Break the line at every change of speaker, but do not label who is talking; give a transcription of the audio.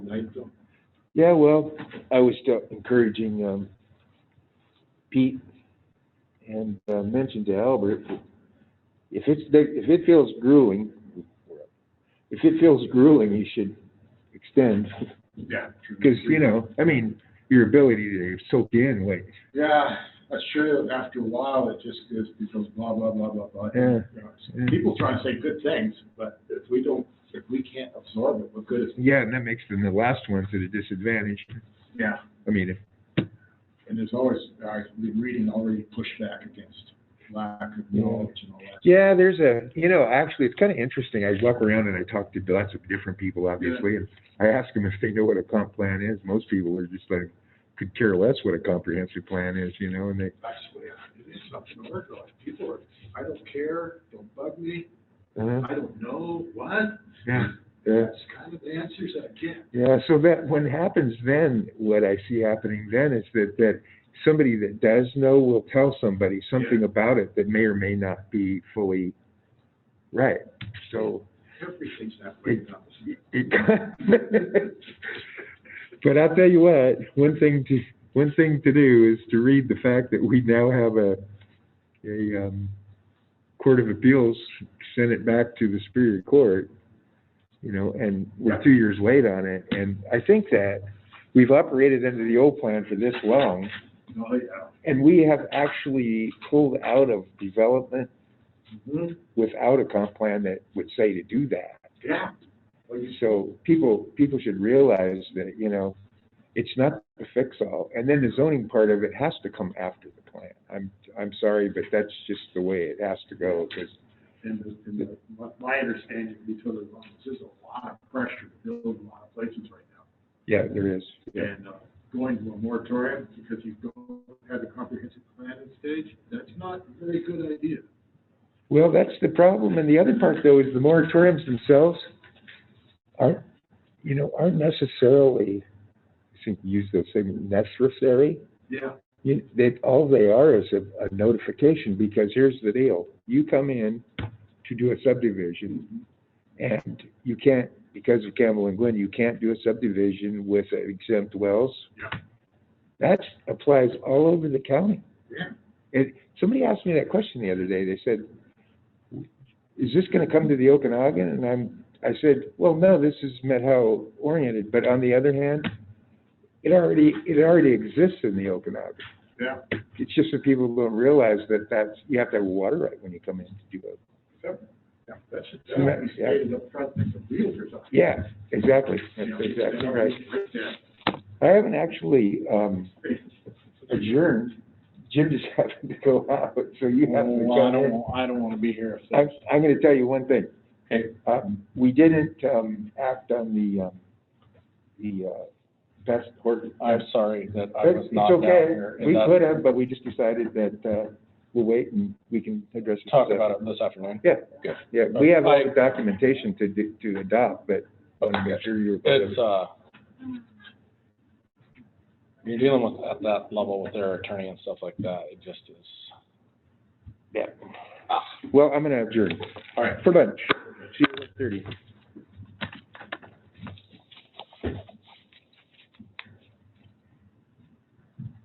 tonight, though?
Yeah, well, I was still encouraging, um, Pete and, uh, mentioned to Albert, if it's, if it feels grueling, if it feels grueling, you should extend,
Yeah.
because, you know, I mean, your ability to soak in, like,
Yeah, I'm sure after a while, it just goes, becomes blah, blah, blah, blah, blah. You
Yeah.
know,
Yeah.
People try and say good things, but if we don't, if we can't absorb it, what good is it?
yeah, and that makes them the last ones at a disadvantage.
Yeah.
I mean, if,
And there's always, I've been reading already pushback against lack of knowledge and all that.
Yeah, there's a, you know, actually, it's kind of interesting. I walk around and I talk to lots of different people, obviously, and I ask them if they know what a comp plan is. Most people are just like, could care less what a comprehensive plan is, you know, and they,
That's the way I- it is something to work on. People are, I don't care, don't bug me,
uh,
I don't know, what?
yeah, yeah.
That's kind of the answers I get.
Yeah, so that, what happens then, what I see happening then is that, that somebody that does know will tell somebody something about it that may or may not be fully right. So,
Everything's that way now.
It- But I'll tell you what, one thing to, one thing to do is to read the fact that we now have a, a, um, Court of Appeals sent it back to the Superior Court, you know, and we're two years late on it, and I think that we've operated under the old plan for this long,
Oh, yeah.
and we have actually pulled out of development
Mhm.
without a comp plan that would say to do that.
Yeah. Well, you
So people, people should realize that, you know, it's not a fix-all. And then the zoning part of it has to come after the plan. I'm, I'm sorry, but that's just the way it has to go, because,
And, the- and the- my, my understanding, to be totally wrong, is there's a lot of pressure to build in a lot of places right now.
yeah, there is. Yeah.
And, uh, going to a moratorium because you don't have a comprehensive planning stage, that's not a very good idea.
Well, that's the problem. And the other part, though, is the moratoriums themselves aren't, you know, aren't necessarily, I think you used the same, necessary.
Yeah.
You, that, all they are is a, a notification, because here's the deal. You come in to do a subdivision, and you can't, because of Campbell and Glenn, you can't do a subdivision with exempt wells.
Yeah.
That applies all over the county.
Yeah.
And somebody asked me that question the other day. They said, is this gonna come to the Okanagan? And I'm, I said, well, no, this is Methow oriented, but on the other hand, it already, it already exists in the Okanagan.
Yeah.
It's just that people don't realize that that's, you have to have a water right when you come in to do it.
Yeah, That should,
So that-
that be
yeah.
stated up front like the realtors are.
Yeah, exactly.
You
That's
know,
exactly
they're
right.
already there.
I haven't actually, um, adjourned. Jim just happened to go out, so you have to
Oh,
Well, I
go
don't,
in.
wa- I don't wanna be here if
I'm,
that's,
I'm gonna tell you one thing. Um, we didn't, um, act on the, um, the, uh, best court.
I'm sorry that I was
It's
not down
okay.
here. and
We
that-
could have, but we just decided that, uh, we'll wait and we can address it.
Talk about it this afternoon.
Yeah.
Good.
Yeah, we have all the documentation to, do- to adopt, but I wanna make sure you're.
It's, uh, you're dealing with, at that level with their attorney and stuff like that, it just is.
Yeah. Well, I'm gonna adjourn
All right.
for lunch. See you at thirty.